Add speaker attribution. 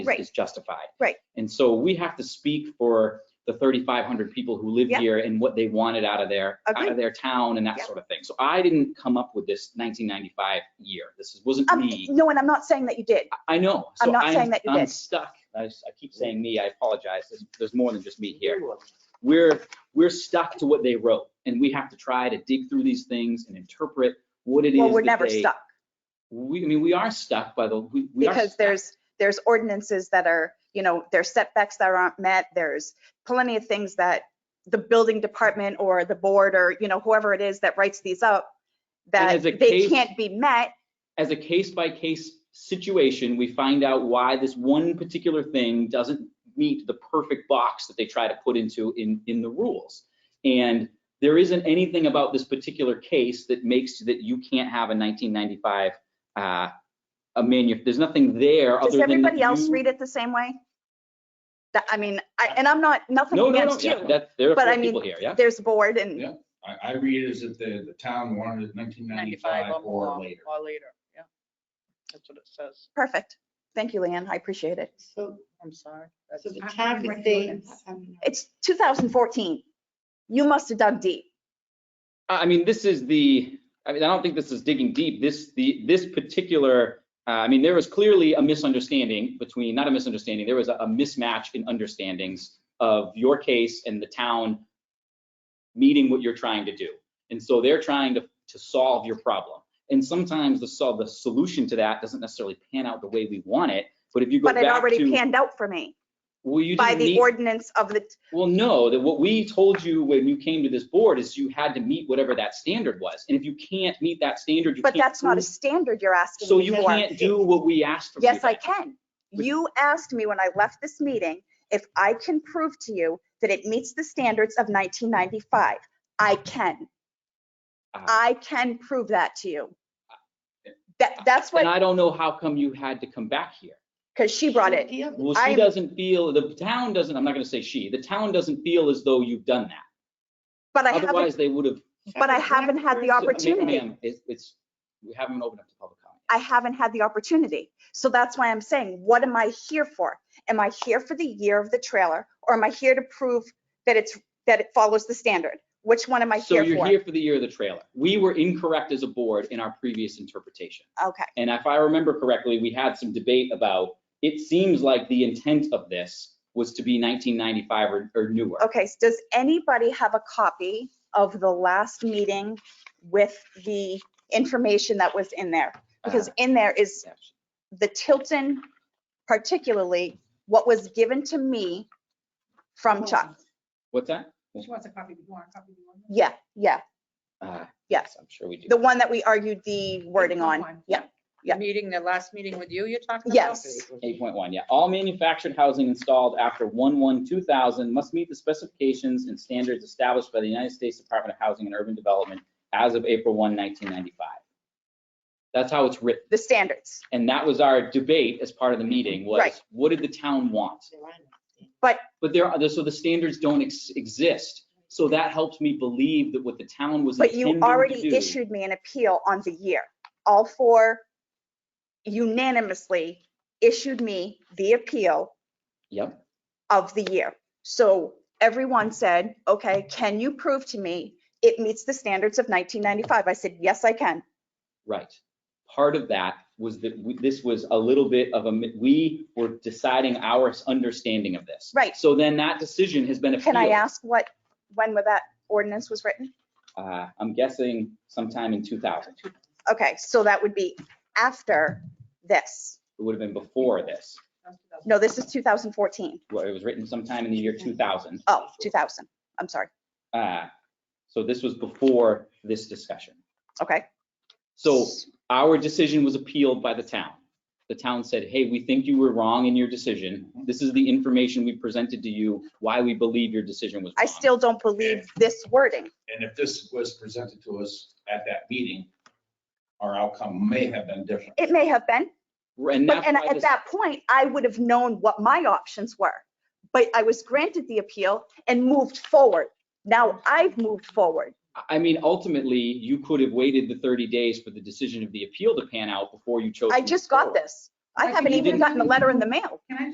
Speaker 1: is,
Speaker 2: Right.
Speaker 1: is justified.
Speaker 2: Right.
Speaker 1: And so we have to speak for the 3,500 people who live
Speaker 2: Yeah.
Speaker 1: here and what they wanted out of their, out
Speaker 2: Agreed.
Speaker 1: of their town and that
Speaker 2: Yeah.
Speaker 1: sort of thing. So I didn't come up with this 1995 year. This is- wasn't
Speaker 2: Um,
Speaker 1: me.
Speaker 2: no, and I'm not saying that you did.
Speaker 1: I- I know.
Speaker 2: I'm
Speaker 1: So
Speaker 2: not saying that you
Speaker 1: I'm
Speaker 2: did.
Speaker 1: stuck. I s- I keep saying me. I apologize. There's- There's more than just me here we're we're stuck to what they wrote and we have to try to dig through these things and interpret what it is
Speaker 2: Well, we're
Speaker 1: that
Speaker 2: never
Speaker 1: they-
Speaker 2: stuck
Speaker 1: we i mean we are stuck by the we, we are
Speaker 2: because
Speaker 1: stuck.
Speaker 2: there's, there's ordinances that are, you know, there's setbacks that aren't met. There's plenty of things that the building department or the board or, you know, whoever it is that writes these up, that
Speaker 1: as a
Speaker 2: they
Speaker 1: case-
Speaker 2: can't be met.
Speaker 1: as a case by case situation we find out why this one particular thing doesn't meet the perfect box that they try to put into in in the rules and there isn't anything about this particular case that makes that you can't have a 1995 uh a manu there's nothing there
Speaker 2: Does
Speaker 1: other than that
Speaker 2: everybody else
Speaker 1: you-
Speaker 2: read it the same way? That, I mean, I, and I'm not, nothing
Speaker 1: no no no
Speaker 2: against
Speaker 1: yeah,
Speaker 2: you.
Speaker 1: that there are
Speaker 2: but I
Speaker 1: four
Speaker 2: mean,
Speaker 1: people here yeah
Speaker 2: There's a board and
Speaker 3: Yeah. I, I read it as if the, the town wanted it nineteen ninety-five or later.
Speaker 4: Or later, yeah. That's what it says.
Speaker 2: perfect. Thank you, Leanne. I appreciate it.
Speaker 5: So,
Speaker 4: I'm sorry.
Speaker 5: so the
Speaker 4: That's-
Speaker 5: town
Speaker 6: Right.
Speaker 5: could say, um,
Speaker 2: It's 2014. You must have dug deep.
Speaker 1: I I mean, this is the, I mean, I don't think this is digging deep. This, the, this particular, uh, I mean, there was clearly a misunderstanding between, not a misunderstanding, there was a a mismatch in understandings of your case and the town meeting what you're trying to do. And so they're trying to, to solve your problem. And sometimes the solve, the solution to that doesn't necessarily pan out the way we want it. But if you go
Speaker 2: But it
Speaker 1: back
Speaker 2: already
Speaker 1: to,
Speaker 2: panned out for me
Speaker 1: well, you
Speaker 2: by
Speaker 1: didn't
Speaker 2: the
Speaker 1: meet
Speaker 2: ordinance of the,
Speaker 1: well, no, that what we told you when you came to this board is you had to meet whatever that standard was. And if you can't meet that standard, you
Speaker 2: but
Speaker 1: can't.
Speaker 2: that's not a
Speaker 1: prove-
Speaker 2: standard you're asking
Speaker 1: So
Speaker 2: me
Speaker 1: you
Speaker 2: for.
Speaker 1: can't do what we asked from you.
Speaker 2: Yes, I
Speaker 1: then.
Speaker 2: can.
Speaker 1: But-
Speaker 2: You asked me when I left this meeting if I can prove to you that it meets the standards of 1995. I can.
Speaker 1: Ah.
Speaker 2: I can prove that to you. That, that's
Speaker 1: Ah, And
Speaker 2: what,
Speaker 1: I don't know how come you had to come back here.
Speaker 2: because she brought it.
Speaker 5: yeah,
Speaker 1: Well, she
Speaker 2: I'm-
Speaker 1: doesn't feel, the town doesn't, I'm not going to say she, the town doesn't feel as though you've done that.
Speaker 2: But I haven't,
Speaker 1: Otherwise, they would have.
Speaker 2: but I haven't had the opportunity.
Speaker 1: It's, we haven't opened up to public comment.
Speaker 2: I haven't had the opportunity. So that's why I'm saying, what am I here for? Am I here for the year of the trailer or am I here to prove that it's, that it follows the standard? Which one am I
Speaker 1: So
Speaker 2: here
Speaker 1: you're
Speaker 2: for?
Speaker 1: here for the year of the trailer. We were incorrect as a board in our previous interpretation.
Speaker 2: Okay,
Speaker 1: And if I remember correctly, we had some debate about, it seems like the intent of this was to be 1995 or, or newer.
Speaker 2: okay. so Does anybody have a copy of the last meeting with the information that was in there? Because
Speaker 1: Uh,
Speaker 2: in there is
Speaker 1: yeah.
Speaker 2: the Tilton, particularly what was given to me from Chuck.
Speaker 1: What's that?
Speaker 6: She wants a copy before, a copy before.
Speaker 2: Yeah, yeah,
Speaker 1: Uh,
Speaker 2: Yes.
Speaker 1: I'm sure we do.
Speaker 2: the one that we argued the wording on.
Speaker 6: One.
Speaker 2: Yeah, yeah.
Speaker 4: The meeting, the last meeting with you, you're talking about?
Speaker 2: Yes.
Speaker 1: 8.1, yeah. All manufactured housing installed after 1/1/2000 must meet the specifications and standards established by the United States Department of Housing and Urban Development as of April 1, 1995. That's how it's written.
Speaker 2: the standards.
Speaker 1: And that was our debate as part of the meeting was,
Speaker 2: Right.
Speaker 1: what did the town want? But there are, so the standards don't ex- exist. So that helps me believe that what the town was
Speaker 2: But
Speaker 1: intending
Speaker 2: you
Speaker 1: to do.
Speaker 2: already issued me an appeal on the year. All four unanimously issued me the appeal
Speaker 1: Yep,
Speaker 2: of the year. So everyone said, okay, can you prove to me it meets the standards of 1995? I said, yes, I can.
Speaker 1: right. Part of that was that we- this was a little bit of a, mi- we were deciding our understanding of this.
Speaker 2: Right.
Speaker 1: So then that decision has been appealed.
Speaker 2: Can I ask what, when was that ordinance was written?
Speaker 1: Uh, I'm guessing sometime in 2000.
Speaker 2: Okay, so that would be after this.
Speaker 1: It would have been before this.
Speaker 2: No, this is 2014.
Speaker 1: Well, It was written sometime in the year 2000.
Speaker 2: Oh, 2000. I'm sorry.
Speaker 1: Uh, So this was before this discussion.
Speaker 2: Okay.
Speaker 1: So our decision was appealed by the town. The town said, hey, we think you were wrong in your decision. This is the information we presented to you, why we believe your decision was wrong.
Speaker 2: I still don't believe this wording.
Speaker 3: And if this was presented to us at that meeting, our outcome may have been different.
Speaker 2: It may have been,
Speaker 1: And
Speaker 2: But,
Speaker 1: that's
Speaker 2: and
Speaker 1: why
Speaker 2: at
Speaker 1: this-
Speaker 2: that point, I would have known what my options were. But I was granted the appeal and moved forward. Now I've moved forward.
Speaker 1: I mean, ultimately, you could have waited the 30 days for the decision of the appeal to pan out before you chose.
Speaker 2: I
Speaker 1: to
Speaker 2: just
Speaker 1: move
Speaker 2: got
Speaker 1: forward.
Speaker 2: this. I
Speaker 6: Right,
Speaker 2: haven't
Speaker 1: you
Speaker 2: even
Speaker 1: didn't-
Speaker 2: gotten a letter in the mail.
Speaker 6: Can I